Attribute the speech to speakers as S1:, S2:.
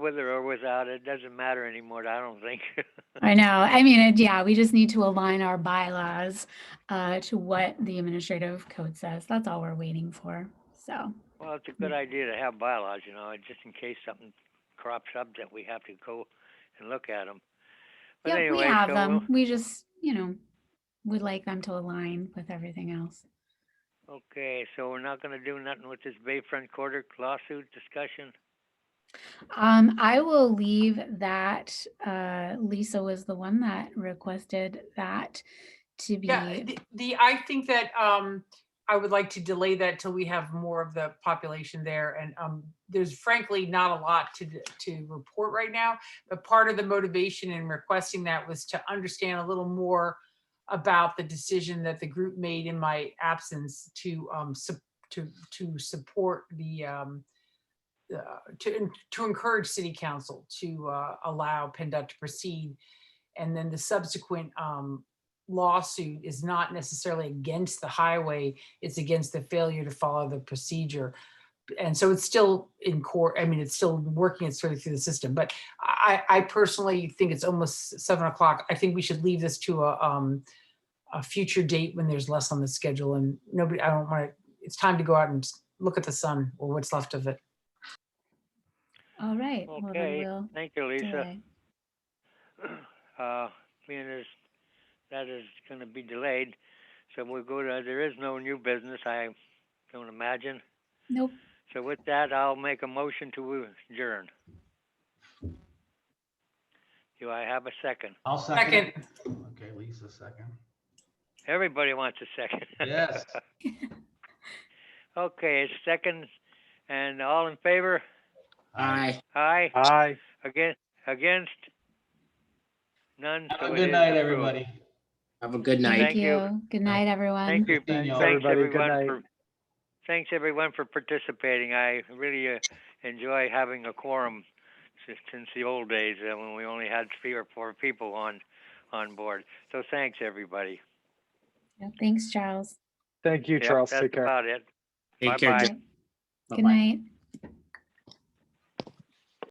S1: with it or without it, doesn't matter anymore, I don't think.
S2: I know. I mean, it- yeah, we just need to align our bylaws uh, to what the administrative code says. That's all we're waiting for. So,
S1: Well, it's
S2: Hmm.
S1: a good idea to have bylaws, you know, just in case something crops up that we have to go and look at them. But
S2: yeah, we
S1: anyway,
S2: have
S1: so
S2: them. We just, you know, would like them to align with everything else.
S1: we'll- Okay, so we're not gonna do nothing with this Bayfront Quarter lawsuit discussion?
S2: Um, I will leave that. Uh, Lisa was the one that requested that to be.
S3: Yeah, the- the, I think that um, I would like to delay that till we have more of the population there. And um, there's frankly not a lot to, d- to report right now. But part of the motivation in requesting that was to understand a little more about the decision that the group made in my absence to, um, sup- to, to support the, um, uh, to, en- to encourage city council to uh, allow PennDOT to proceed. And then the subsequent um, lawsuit is not necessarily against the highway, it's against the failure to follow the procedure. And so it's still in court, I mean, it's still working its way through the system, but I, I personally think it's almost seven o'clock. I think we should leave this to a, um, a future date when there's less on the schedule and nobody, I don't want to, it's time to go out and s- look at the sun or what's left of it.
S2: all right. Well, then
S1: Okay,
S2: we'll
S1: Thank you, Lisa.
S2: delay.
S1: Uh, being as that is gonna be delayed, so we'll go to, there is no new business, I don't imagine.
S2: Nope.
S1: So with that, I'll make a motion to adjourn. Do I have a second?
S4: I'll second.
S3: Second,
S4: it. Okay, Lisa, second.
S1: Everybody wants a second.
S4: Yes.
S1: Okay, it's second, and all in favor?
S4: Aye.
S1: Aye,
S5: Aye.
S1: against, against? None,
S4: Have
S1: so
S4: a
S1: it
S4: good
S1: is
S4: night,
S1: approved.
S4: everybody.
S6: Have a good night.
S2: Thank
S1: Thank you.
S2: you. Good night, everyone.
S1: Thank you,
S4: Thank you,
S1: thanks
S5: everybody. Good
S1: everyone
S5: night.
S1: for, thanks everyone for participating. I really uh, enjoy having a quorum si- since the old days, uh, when we only had three or four people on, on board. So thanks, everybody.
S2: Yeah, Thanks, Charles.
S5: Thank you,
S1: Yep,
S5: Charles.
S1: That's
S5: Take care.
S1: about it.
S6: Take care.
S1: Bye-bye.
S6: Jeff.
S2: Good
S6: Bye-bye.
S2: night.